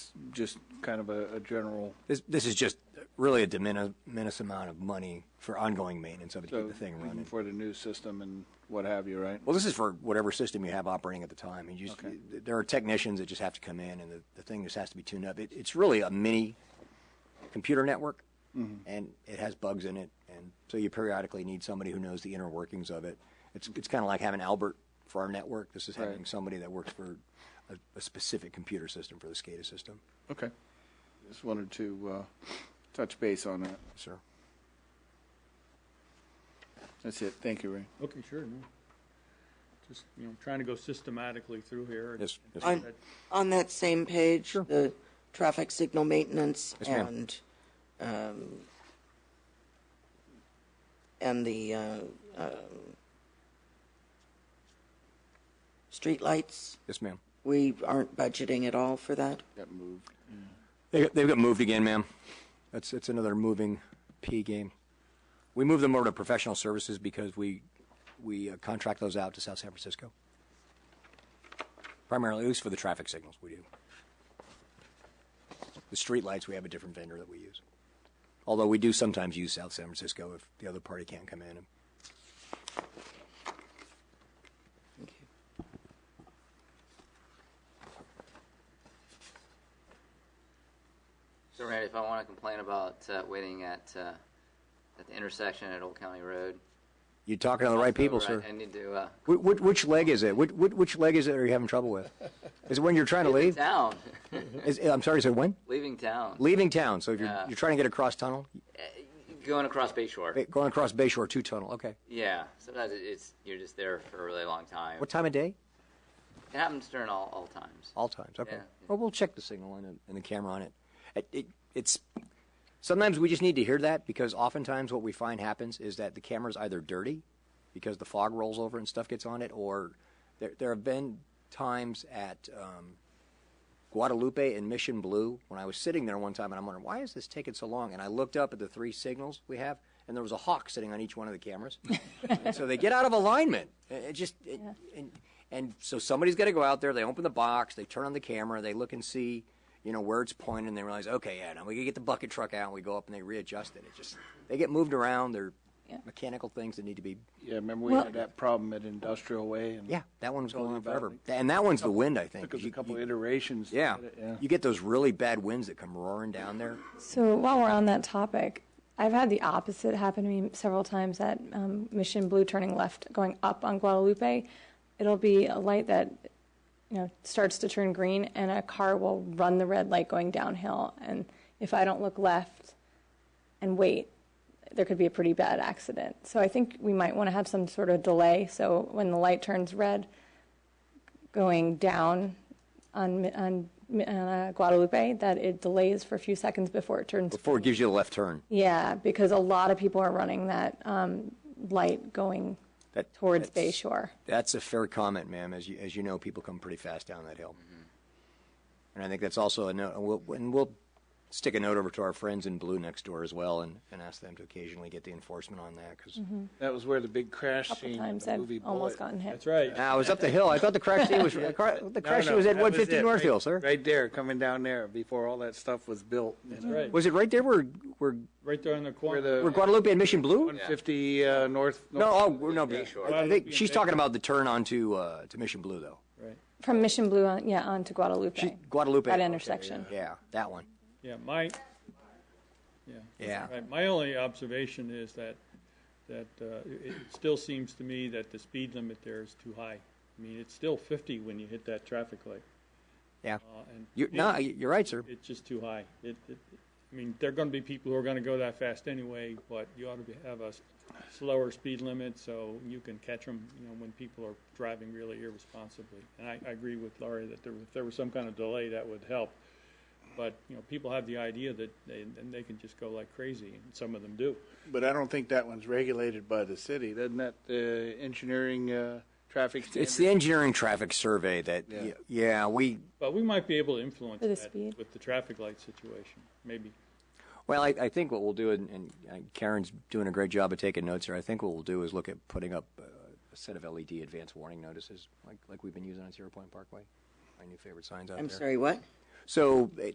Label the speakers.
Speaker 1: is just kind of a, a general,
Speaker 2: This, this is just really a de mini- minimis amount of money for ongoing maintenance of it to
Speaker 1: so,
Speaker 2: keep the thing running.
Speaker 1: for the new system and what have you, right?
Speaker 2: Well, this is for whatever system you have operating at the time. You just,
Speaker 1: Okay.
Speaker 2: There are technicians that just have to come in, and the, the thing just has to be tuned up. It, it's really a mini computer network,
Speaker 1: Mm-hmm.
Speaker 2: and it has bugs in it, and so you periodically need somebody who knows the inner workings of it. It's, it's kind of like having Albert for our network. This is having
Speaker 1: Right.
Speaker 2: somebody that works for a, a specific computer system for the SCADA system.
Speaker 1: Okay. Just wanted to uh, touch base on that.
Speaker 2: Sir.
Speaker 1: That's it. Thank you, Ray.
Speaker 3: Okay, sure, no. Just, you know, trying to go systematically through here.
Speaker 2: Yes, yes, ma'am.
Speaker 3: And- that-
Speaker 4: On that same page, the traffic signal maintenance
Speaker 2: Yes, ma'am.
Speaker 4: and, um, and the, uh, um, streetlights,
Speaker 2: Yes, ma'am.
Speaker 4: we aren't budgeting at all for that?
Speaker 1: Got moved.
Speaker 2: They, got- they've got moved again, ma'am. That's, that's another moving P game. We moved them over to professional services because we, we uh, contract those out to South San Francisco. Primarily, at least for the traffic signals, we do. The streetlights, we have a different vendor that we use. Although we do sometimes use South San Francisco if the other party can't come in.
Speaker 5: So Randy, if I want to complain about uh, waiting at uh, at the intersection at Old County Road,
Speaker 2: You're talking to the right people,
Speaker 5: so
Speaker 2: sir.
Speaker 5: I, I need to uh,
Speaker 2: Wh- wh- Which leg is it? Which, which leg is it are you having trouble with? Is it when you're trying to
Speaker 5: leave
Speaker 2: leave?
Speaker 5: town.
Speaker 2: Is, I'm sorry, sir, when?
Speaker 5: leaving town,
Speaker 2: leaving town. So if you're,
Speaker 5: Yeah.
Speaker 2: you're trying to get across tunnel,
Speaker 5: going across Bayshore.
Speaker 2: ba- going across Bayshore two tunnel. Okay.
Speaker 5: Yeah, sometimes it- it's you're just there for a really long time.
Speaker 2: What time of day?
Speaker 5: It happens during all, all times.
Speaker 2: All times. Okay.
Speaker 5: Yeah.
Speaker 2: Well, we'll check the signal and, and the camera on it. It, it. It's sometimes we just need to hear that because oftentimes what we find happens is that the camera's either dirty because the fog rolls over and stuff gets on it, or there there have been times at. Um, Guadalupe and Mission Blue. When I was sitting there one time, and I'm wondering why is this taking so long, and I looked up at the three signals we have, and there was a hawk sitting on each one of the cameras. And so they get out of alignment. It it just it, and, and so somebody's got to go out there. They open the box, they turn on the camera, they look and see, you know, where it's pointing, and they realize, okay, yeah, now we can get the bucket truck out. and We go up and they readjust it. It just they get moved around. They're mechanical things that need to be.
Speaker 1: Yeah, remember we had that problem at Industrial Way? and
Speaker 2: Yeah, that one was
Speaker 1: Told you
Speaker 2: going on
Speaker 1: about
Speaker 2: forever,
Speaker 1: it.
Speaker 2: and that one's the wind, I think.
Speaker 1: Took us a
Speaker 2: You-
Speaker 1: couple
Speaker 2: you-
Speaker 1: iterations. to
Speaker 2: yeah,
Speaker 1: get it, Yeah.
Speaker 2: you get those really bad winds that come roaring down there.
Speaker 6: So while we're on that topic, I've had the opposite happen to me several times at um, Mission Blue turning left, going up on Guadalupe. It'll be a light that you know starts to turn green, and a car will run the red light going downhill. And if I don't look left and wait, there could be a pretty bad accident. So I think we might want to have some sort of delay. So when the light turns red, going down on on uh, Guadalupe, that it delays for a few seconds before it turns.
Speaker 2: Before it gives you the left turn,
Speaker 6: Yeah, because a lot of people are running that um, light going
Speaker 2: That-
Speaker 6: towards
Speaker 2: that's-
Speaker 6: Bay Shore.
Speaker 2: That's a fair comment, ma'am. As you, as you know, people come pretty fast down that hill.
Speaker 1: Mm-hmm.
Speaker 2: And I think that's also a note, and we'll, and we'll stick a note over to our friends in blue next door as well and, and ask them to occasionally get the enforcement on that. Because
Speaker 6: Mm-hmm.
Speaker 1: That was where the big crash
Speaker 6: A couple
Speaker 1: scene in
Speaker 6: times
Speaker 1: the
Speaker 6: I've
Speaker 1: movie
Speaker 6: almost
Speaker 1: Bullet.
Speaker 6: gotten hit.
Speaker 3: That's right.
Speaker 2: I was up the hill. I thought the crash scene was, the cra-
Speaker 1: No,
Speaker 2: the crash
Speaker 1: no,
Speaker 2: scene was at
Speaker 1: that
Speaker 2: 150
Speaker 1: it,
Speaker 2: North
Speaker 1: right-
Speaker 2: Hill, sir.
Speaker 1: Right there, coming down there before all that stuff was built.
Speaker 3: That's right.
Speaker 2: Was it right there where, where,
Speaker 3: Right there in the
Speaker 1: Where
Speaker 3: corner.
Speaker 1: the
Speaker 2: where Guadalupe and Mission Blue?
Speaker 1: 150 uh, North.
Speaker 2: No, oh, no.
Speaker 5: Bayshore.
Speaker 2: I think she's talking about the turn onto uh, to Mission Blue, though.
Speaker 3: Right.
Speaker 6: From Mission Blue, on, yeah, onto Guadalupe.
Speaker 2: She, Guadalupe.
Speaker 6: That
Speaker 2: okay,
Speaker 6: intersection.
Speaker 2: Yeah, yeah, that one.
Speaker 3: Yeah, my, yeah.
Speaker 2: Yeah.
Speaker 3: Right, my only observation is that, that uh, it it still seems to me that the speed limit there is too high. I mean, it's still 50 when you hit that traffic light.
Speaker 2: Yeah.
Speaker 3: uh, and
Speaker 2: You're, no, you're right, sir.
Speaker 3: It's just too high. It, it, I mean, there are going to be people who are going to go that fast anyway, but you ought to be- have a s- slower speed limit so you can catch them, you know, when people are driving really irresponsibly. And I, I agree with Laurie that there, if there was some kind of delay, that would help. But, you know, people have the idea that they, and they can just go like crazy, and some of them do.
Speaker 1: But I don't think that one's regulated by the city. Doesn't that the engineering uh, traffic? standard-
Speaker 2: It's the engineering traffic survey that, yeah, we,
Speaker 3: But we might be able to influence
Speaker 6: For the
Speaker 3: that
Speaker 6: speed.
Speaker 3: with the traffic light situation, maybe.
Speaker 2: well, I, I think what we'll do, and, and uh, Karen's doing a great job of taking notes here, I think what we'll do is look at putting up uh, a set of LED advanced warning notices, like, like we've been using on Zero Point Parkway, my new favorite signs out there.
Speaker 4: I'm sorry, what?
Speaker 2: So, uh,